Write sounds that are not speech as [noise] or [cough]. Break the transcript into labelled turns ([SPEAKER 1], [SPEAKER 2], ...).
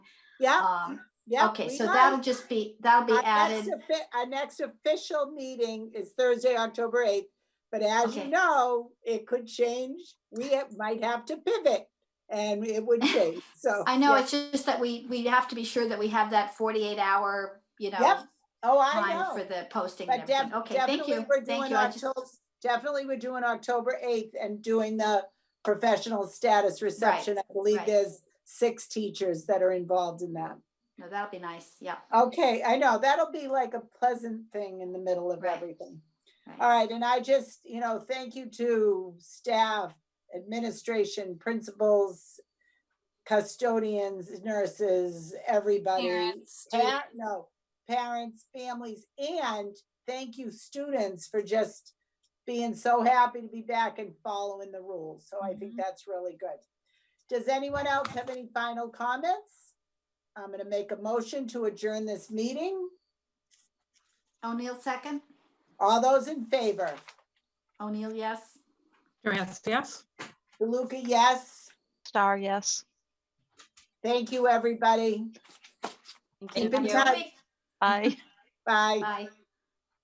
[SPEAKER 1] Yeah,
[SPEAKER 2] Um,
[SPEAKER 1] Oh, yeah.
[SPEAKER 2] okay,
[SPEAKER 1] we
[SPEAKER 2] so
[SPEAKER 1] are.
[SPEAKER 2] that'll just be, that'll be
[SPEAKER 1] Our next
[SPEAKER 2] added.
[SPEAKER 1] offi- Our next official meeting is Thursday, October eighth, but as you
[SPEAKER 2] Okay.
[SPEAKER 1] know, it could change. We ha- might have to pivot and it
[SPEAKER 2] [laughs]
[SPEAKER 1] would change, so.
[SPEAKER 2] I know,
[SPEAKER 1] yeah.
[SPEAKER 2] it's just that we, we have to be sure that we have that forty-eight hour, you know,
[SPEAKER 1] Yep, Oh, I
[SPEAKER 2] time for
[SPEAKER 1] know.
[SPEAKER 2] the posting and
[SPEAKER 1] But def-
[SPEAKER 2] everything. Okay, thank
[SPEAKER 1] definitely
[SPEAKER 2] you,
[SPEAKER 1] we're
[SPEAKER 2] thank
[SPEAKER 1] doing
[SPEAKER 2] you. I just-
[SPEAKER 1] October, definitely we're doing October eighth and doing the professional status reception. I believe
[SPEAKER 2] right.
[SPEAKER 1] there's six teachers that are involved in that.
[SPEAKER 2] No, that'll be nice, yeah.
[SPEAKER 1] Okay, I know, that'll be like a pleasant thing in the middle of
[SPEAKER 2] Right.
[SPEAKER 1] everything.
[SPEAKER 2] Right.
[SPEAKER 1] All right, and I just, you know, thank you to staff, administration, principals, custodians, nurses, everybody.
[SPEAKER 3] Parents,
[SPEAKER 1] Par-
[SPEAKER 3] students.
[SPEAKER 1] No, parents, families, and thank you, students, for just being so happy to be back and following the rules. So I think
[SPEAKER 2] Mhm.
[SPEAKER 1] that's really good. Does anyone else have any final comments? I'm gonna make a motion to adjourn this meeting.
[SPEAKER 2] O'Neill second?
[SPEAKER 1] All those in favor?
[SPEAKER 2] O'Neill, yes?
[SPEAKER 4] Durant, yes?
[SPEAKER 1] DeLuca, yes.
[SPEAKER 5] Star, yes.
[SPEAKER 1] Thank you, everybody.
[SPEAKER 3] Thank
[SPEAKER 1] Keep
[SPEAKER 3] you.
[SPEAKER 1] in
[SPEAKER 2] Have a good
[SPEAKER 1] touch.
[SPEAKER 2] week.
[SPEAKER 5] Bye.
[SPEAKER 1] Bye.
[SPEAKER 2] Bye.